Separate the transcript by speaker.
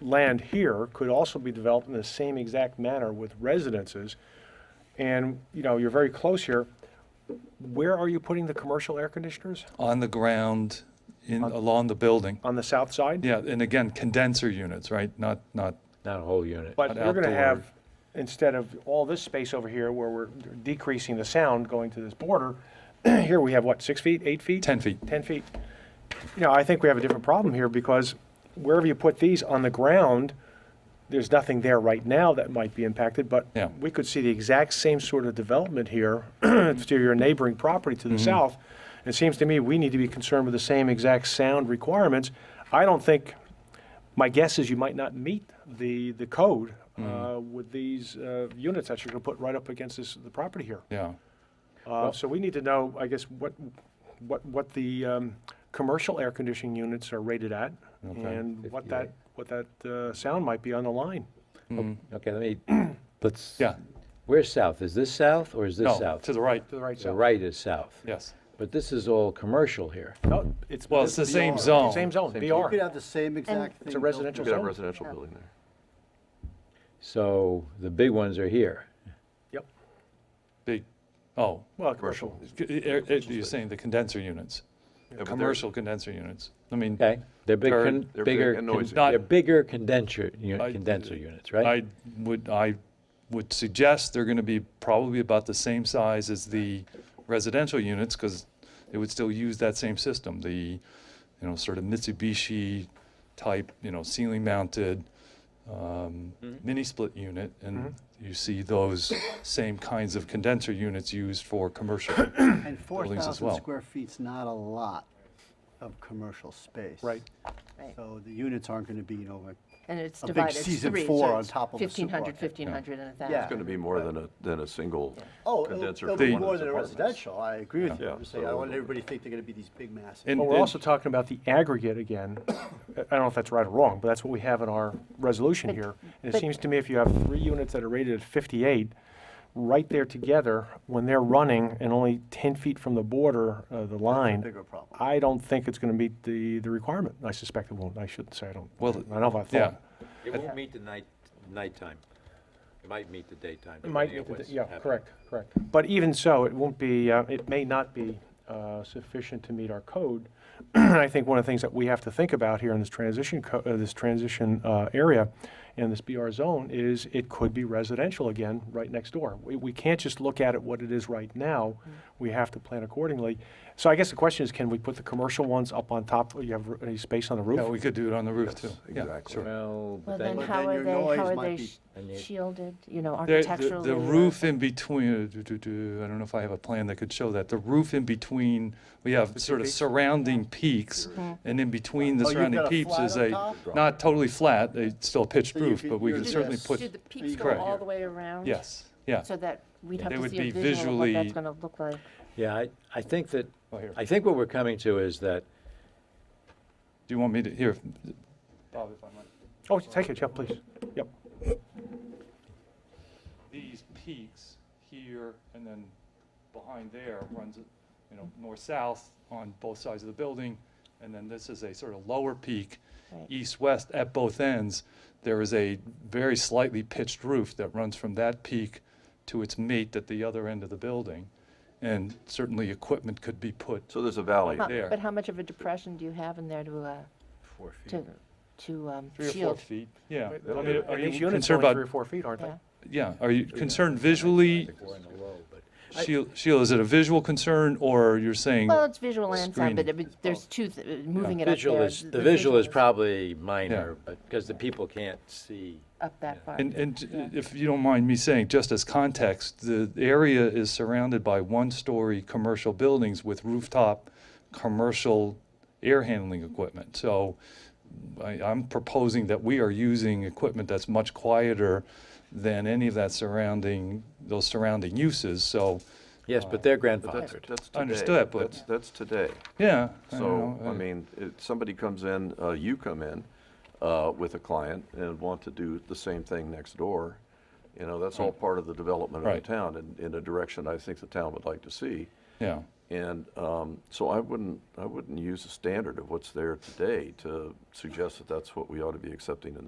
Speaker 1: land here could also be developed in the same exact manner with residences. And, you know, you're very close here. Where are you putting the commercial air conditioners?
Speaker 2: on the ground, in, along the building.
Speaker 1: On the south side?
Speaker 2: Yeah, and again, condenser units, right? Not, not,
Speaker 3: Not a whole unit.
Speaker 1: But
Speaker 2: An
Speaker 1: you're gonna
Speaker 2: outdoor-
Speaker 1: have, instead of all this space over here where we're decreasing the sound going to this border, here we have what, six feet, eight feet?
Speaker 2: 10 feet.
Speaker 1: 10 feet. You know, I think we have a different problem here because wherever you put these on the ground, there's nothing there right now that might be impacted, but
Speaker 2: Yeah.
Speaker 1: we could see the exact same sort of development here to your neighboring property to the south. It seems to me we need to be concerned with the same exact sound requirements. I don't think, my guess is you might not meet the, the code uh, with these uh, units that you're going to put right up against this, the property here.
Speaker 2: yeah.
Speaker 1: Uh, So we need to know, I guess, what, what, what the um, commercial air conditioning units are rated at and what that, what that uh, sound might be on the line.
Speaker 3: Okay, let me, let's.
Speaker 2: Yeah.
Speaker 3: Where's south? Is this south or is this
Speaker 2: No,
Speaker 3: south?
Speaker 2: to the right,
Speaker 1: To the right
Speaker 3: The
Speaker 1: sound.
Speaker 3: right is south.
Speaker 2: yes.
Speaker 3: But this is all commercial here.
Speaker 1: No, it's.
Speaker 2: Well, it's the same
Speaker 1: BR.
Speaker 2: zone.
Speaker 1: Same zone,
Speaker 4: You could
Speaker 1: BR.
Speaker 4: have the same exact thing.
Speaker 1: It's a
Speaker 4: built
Speaker 1: residential
Speaker 5: You could have a
Speaker 1: zone.
Speaker 5: residential building there.
Speaker 3: So the big ones are here.
Speaker 1: Yep.
Speaker 2: Big, oh,
Speaker 1: Well, commercial.
Speaker 2: c- air- air- you're saying the condenser units,
Speaker 5: but they're-
Speaker 2: commercial condenser units. I mean,
Speaker 3: Okay? They're big,
Speaker 2: They're-
Speaker 3: con-
Speaker 5: they're big
Speaker 3: bigger,
Speaker 5: and
Speaker 3: con-
Speaker 5: noisy.
Speaker 3: they're
Speaker 2: Not-
Speaker 3: bigger condenser, u-
Speaker 2: I-
Speaker 3: condenser units, right?
Speaker 2: I would, I would suggest they're going to be probably about the same size as the residential units because they would still use that same system, the, you know, sort of Mitsubishi type, you know, ceiling mounted um, mini split unit. And you see those same kinds of condenser units used for commercial.
Speaker 4: And
Speaker 2: buildings as
Speaker 4: 4,000
Speaker 2: well.
Speaker 4: square feet's not a lot of commercial space.
Speaker 1: Right.
Speaker 6: Right.
Speaker 4: So the units aren't going to be, you know, like,
Speaker 6: And it's
Speaker 4: a big
Speaker 6: divided, it's
Speaker 4: season
Speaker 6: three,
Speaker 4: four
Speaker 6: so
Speaker 4: on
Speaker 6: it's
Speaker 4: top of a
Speaker 6: 1,500,
Speaker 4: supermarket.
Speaker 6: 1,500, and
Speaker 4: Yeah.
Speaker 6: 1,000.
Speaker 5: It's going to be more than a, than a single
Speaker 4: oh, it'll-
Speaker 5: condenser.
Speaker 4: it'll
Speaker 5: for
Speaker 4: be
Speaker 5: one of
Speaker 4: more
Speaker 5: these
Speaker 4: than a
Speaker 5: apartments.
Speaker 4: residential. I agree with you.
Speaker 5: Yeah,
Speaker 4: I'm just saying,
Speaker 5: so
Speaker 4: I
Speaker 5: it'll
Speaker 4: don't want
Speaker 5: go-
Speaker 4: everybody to think they're going to be these big massive.
Speaker 2: And-
Speaker 1: But we're
Speaker 2: and-
Speaker 1: also talking about the aggregate again. I don't know if that's right or wrong, but that's what we have in our resolution here. And it
Speaker 6: but-
Speaker 1: seems to me if you have three units that are rated at 58, right there together, when they're running and only 10 feet from the border, uh, the line.
Speaker 4: bigger problem.
Speaker 1: I don't think it's going to meet the, the requirement. I suspect it won't. I shouldn't say I don't.
Speaker 2: Well,
Speaker 1: I know if I
Speaker 2: Yeah,
Speaker 1: thought.
Speaker 7: It won't meet the night, nighttime. It might meet the daytime.
Speaker 1: It might,
Speaker 7: depending on
Speaker 1: meet the-
Speaker 7: what's
Speaker 1: yeah,
Speaker 7: happening.
Speaker 1: correct, correct. But even so, it won't be, uh, it may not be uh, sufficient to meet our code. And I think one of the things that we have to think about here in this transition, co- uh, this transition uh, area and this BR zone is it could be residential again, right next door. We, we can't just look at it what it is right now. We have to plan accordingly. So I guess the question is, can we put the commercial ones up on top? You have r- any space on the roof?
Speaker 2: yeah, we could do it on the roof too. Yeah,
Speaker 5: exactly.
Speaker 2: sure.
Speaker 3: Well, but
Speaker 6: Well, then
Speaker 4: But
Speaker 6: how
Speaker 4: then
Speaker 6: are
Speaker 4: your
Speaker 6: they,
Speaker 4: noise
Speaker 6: how are
Speaker 4: might
Speaker 6: they
Speaker 4: be-
Speaker 6: sh-
Speaker 3: And you-
Speaker 6: shielded, you know,
Speaker 2: There- the-
Speaker 6: architecturally?
Speaker 2: The
Speaker 6: or-
Speaker 2: roof in between, uh, do- do- do, I don't know if I have a plan that could show that. The roof in between, we have sort of surrounding peaks, and in between the
Speaker 4: Oh, you've
Speaker 2: surrounding
Speaker 4: got a
Speaker 2: peaks
Speaker 4: flat
Speaker 2: is
Speaker 4: on
Speaker 2: a,
Speaker 4: top?
Speaker 2: not totally flat, it's still a pitched
Speaker 4: So you
Speaker 2: roof,
Speaker 4: could-
Speaker 2: but we
Speaker 4: you
Speaker 2: could
Speaker 4: could
Speaker 2: certainly
Speaker 4: just-
Speaker 6: Do
Speaker 2: put,
Speaker 6: the peaks go
Speaker 4: Correct.
Speaker 6: all the way around?
Speaker 2: yes, yeah.
Speaker 6: So that we'd have
Speaker 2: They
Speaker 6: to
Speaker 2: would
Speaker 6: see
Speaker 2: be
Speaker 6: a visual of what
Speaker 2: visually-
Speaker 6: that's going to look like.
Speaker 3: Yeah, I, I think that,
Speaker 2: Oh, here.
Speaker 3: I think what we're coming to is that
Speaker 2: Do you want me to, here,
Speaker 1: Oh, take it, yeah, please. Yep.
Speaker 2: these peaks here and then behind there runs, you know, north-south on both sides of the building. And then this is a sort of lower peak,
Speaker 6: Right.
Speaker 2: east-west at both ends. There is a very slightly pitched roof that runs from that peak to its mate at the other end of the building. And certainly equipment could be put,
Speaker 5: So there's a valley.
Speaker 6: Huh,
Speaker 2: there.
Speaker 6: But how much of a depression do you have in there to, uh,
Speaker 3: Four feet.
Speaker 6: to, to um,
Speaker 2: three or four
Speaker 6: shield?
Speaker 2: feet. Yeah. I mean,
Speaker 1: And
Speaker 2: Are
Speaker 1: These
Speaker 2: you
Speaker 1: units
Speaker 2: concerned
Speaker 1: are only three or
Speaker 2: about,
Speaker 1: four feet, aren't they?
Speaker 6: Yeah.
Speaker 2: yeah, are you concerned visually?
Speaker 3: Four and a low, but.
Speaker 2: Sheila, Sheila, is it a visual concern or you're saying?
Speaker 6: Well, it's visual and sound, but
Speaker 2: Screening.
Speaker 6: it would- there's two, th- uh, moving it up
Speaker 3: Visual
Speaker 6: there.
Speaker 3: is, the visual is
Speaker 6: probably
Speaker 3: probably minor, but, because the people can't see.
Speaker 6: Up that far.
Speaker 2: And, and j- if you don't mind me saying, just as context, the area is surrounded by one-story commercial buildings with rooftop commercial air handling equipment. So I, I'm proposing that we are using equipment that's much quieter than any of that surrounding, those surrounding uses. So,
Speaker 3: Yes, but they're
Speaker 5: But that's,
Speaker 3: grandfathered.
Speaker 5: that's today.
Speaker 2: Understood, but-
Speaker 5: That's, that's today.
Speaker 2: yeah. I
Speaker 5: So,
Speaker 2: don't know,
Speaker 5: I
Speaker 2: uh,
Speaker 5: mean, if somebody comes in, uh, you come in, uh, with a client and want to do the same thing next door, you know, that's all part of the development of the
Speaker 2: Right.
Speaker 5: town and in a direction I think the town would like to see.
Speaker 2: Yeah,
Speaker 5: And um, so I wouldn't, I wouldn't use a standard of what's there today to suggest that that's what we ought to be accepting in the